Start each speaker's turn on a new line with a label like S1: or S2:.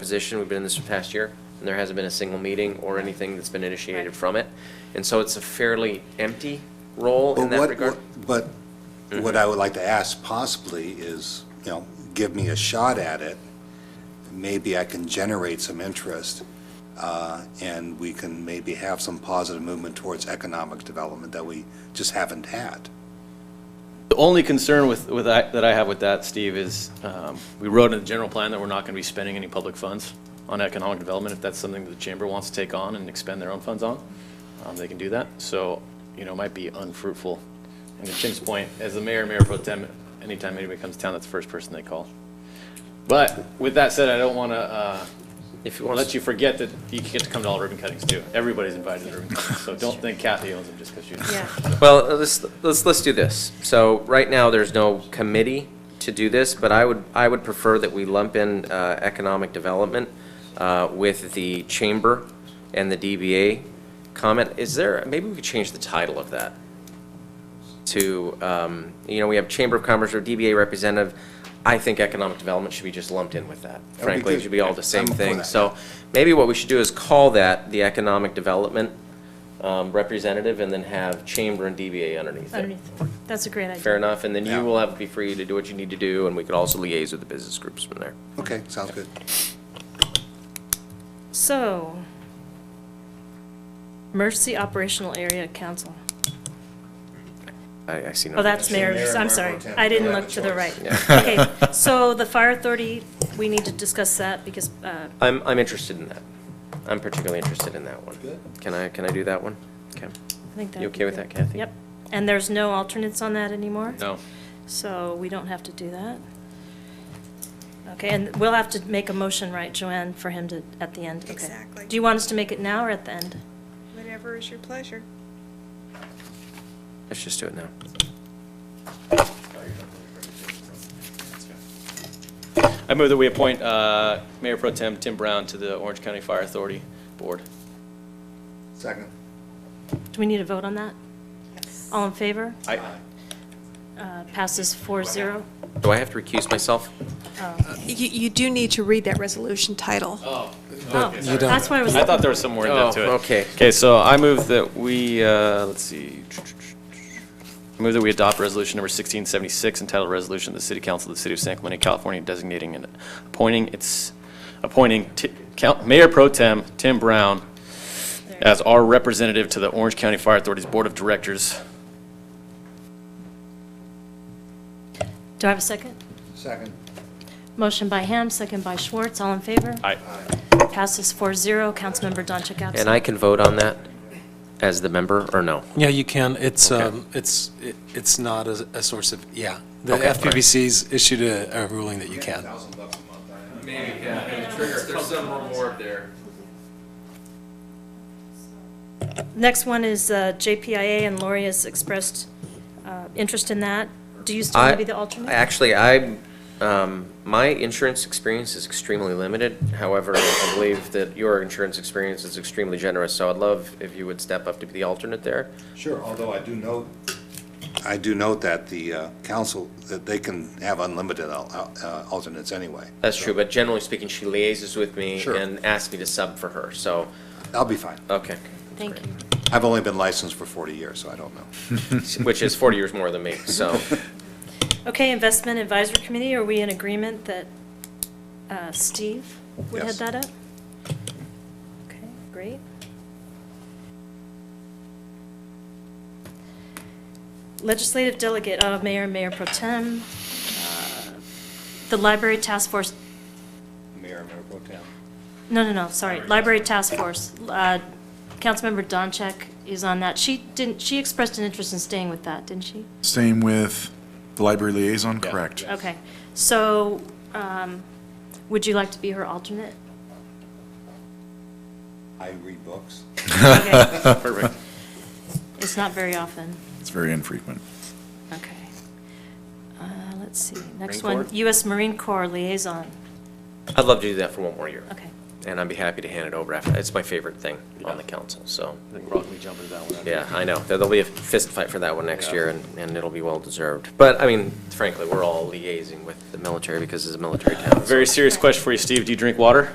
S1: position, we've been in this for the past year, and there hasn't been a single meeting or anything that's been initiated from it. And so it's a fairly empty role in
S2: But
S1: that
S2: what-
S1: regard. Mm-hmm.
S2: what- But what I would like to ask possibly is, you know, give me a shot at it. Maybe I can generate some interest, uh, and we can maybe have some positive movement towards economic development that we just haven't had.
S3: The only concern with, with, that that I have with that, Steve, is um, we wrote in the general plan that we're not going to be spending any public funds on economic development. If that's something that the chamber wants to take on and expend their own funds on, um, they can do that. So, you know, it might be unfruitful. And to Tim's point, as the mayor, mayor pro tem, anytime anybody comes to town, that's the first person they call. But with that said, I don't want to
S1: If you want
S3: let
S1: to,
S3: you forget that you get to come to all ribbon cuttings too. Everybody's invited to ribbon cuttings, so don't think Kathy owns them just because she's.
S4: Yeah,
S1: well, uh, let's, let's, let's do this. So right now, there's no committee to do this, but I would, I would prefer that we lump in uh, economic development uh, with the chamber and the DBA comment. Is there, maybe we could change the title of that to, um, you know, we have Chamber of Commerce or DBA representative. I think economic development should be just lumped in with that.
S2: be
S1: Frankly, it
S2: good.
S1: should be all the
S2: I'm
S1: same
S2: for
S1: thing.
S2: that.
S1: So maybe what we should do is call that the economic development um, representative and then have Chamber and DBA underneath it.
S4: underneath. That's a great idea.
S1: Fair enough, and then
S2: Yeah.
S1: you will have, be free to do what you need to do, and we could also liaise with the business groups from there.
S2: Okay, sounds good.
S4: So, Mercy Operational Area Council.
S1: I, I see no.
S4: Oh, that's
S2: Mayor
S4: mayor, I'm
S2: and
S4: sorry.
S2: Mayor Pro Tem.
S4: I
S2: You
S4: didn't
S2: have
S4: look
S2: a
S4: to the right.
S2: choice.
S4: Okay, so the fire authority, we need to discuss that because, uh,
S1: I'm, I'm interested in that. I'm particularly interested in that one. Can I, can I do that one? Okay.
S4: I think that.
S1: You okay with that, Kathy?
S4: Yep. And there's no alternates on that anymore?
S3: No.
S4: So we don't have to do that. Okay, and we'll have to make a motion, right, Joanne, for him to, at the end? Okay.
S5: Exactly.
S4: Do you want us to make it now or at the end?
S5: Whatever is your pleasure.
S1: Let's just do it now.
S3: I move that we appoint uh, Mayor Pro Tem Tim Brown to the Orange County Fire Authority Board.
S2: Second.
S4: Do we need a vote on that? All in favor?
S3: I-
S4: Uh, Passes four zero.
S1: Do I have to recuse myself?
S5: You, you do need to read that resolution title.
S4: Oh, that's why I was,
S3: I thought there was some more in that to it.
S1: Oh, okay.
S3: Okay, so I move that we, uh, let's see. I move that we adopt Resolution Number 1676 entitled Resolution of the City Council of the City of San Clemente, California designating and appointing its, appointing Ti- Count- Mayor Pro Tem Tim Brown as our representative to the Orange County Fire Authority's Board of Directors.
S4: do I have a second?
S2: Second.
S4: Motion by Ham, second by Schwartz, all in favor?
S3: Aye.
S4: Passes four zero. Councilmember Doncheck absent.
S1: And I can vote on that as the member, or no?
S6: Yeah, you can. It's, um, it's, it- it's not a, a source of, yeah. The
S1: Okay, all right.
S6: FPBC's issued a, a ruling that you can.
S1: Maybe, yeah, trigger, there's some reward there.
S4: Next one is uh, JPIA, and Lori has expressed uh, interest in that. Do you still want
S1: I,
S4: to be the alternate?
S1: actually, I, um, my insurance experience is extremely limited. However, I believe that your insurance experience is extremely generous, so I'd love if you would step up to be the alternate there.
S2: Sure, although I do note. I do note that the uh, council, that they can have unlimited al- al- uh, alternates anyway.
S1: That's true, but generally speaking, she liaises with me
S2: Sure.
S1: and asks me to sub for her, so,
S2: I'll be fine.
S1: okay.
S4: Thank you.
S2: I've only been licensed for 40 years, so I don't know.
S1: Which is 40 years more than me, so.
S4: Okay, Investment Advisory Committee, are we in agreement that uh, Steve would head
S2: Yes.
S4: that up? Okay, great. Legislative Delegate, uh, Mayor, Mayor Pro Tem, uh, the Library Task Force,
S2: Mayor, Mayor Pro Tem.
S4: no, no, no, sorry, Library Task Force. uh, Councilmember Doncheck is on that. She didn't, she expressed an interest in staying with that, didn't she?
S7: Same with the library liaison, correct?
S4: Okay, so um, would you like to be her alternate?
S2: I read books.
S4: Okay,
S3: Perfect.
S4: It's not very often.
S7: It's very infrequent.
S4: Okay. Uh, Let's see, next
S1: Marine
S4: one,
S1: Corps?
S4: U.S. Marine Corps Liaison.
S1: I'd love to do that for one more year.
S4: Okay,
S1: and I'd be happy to hand it over after. It's my favorite thing on the council, so,
S3: I think we're all gonna be jumping to that one.
S1: yeah, I know. There'll be a fist fight for that one next
S3: Yeah.
S1: year, and, and it'll be well-deserved. But, I mean, frankly, we're all liaising with the military because it's a military town. so-
S3: Very serious question for you, Steve. Do you drink water?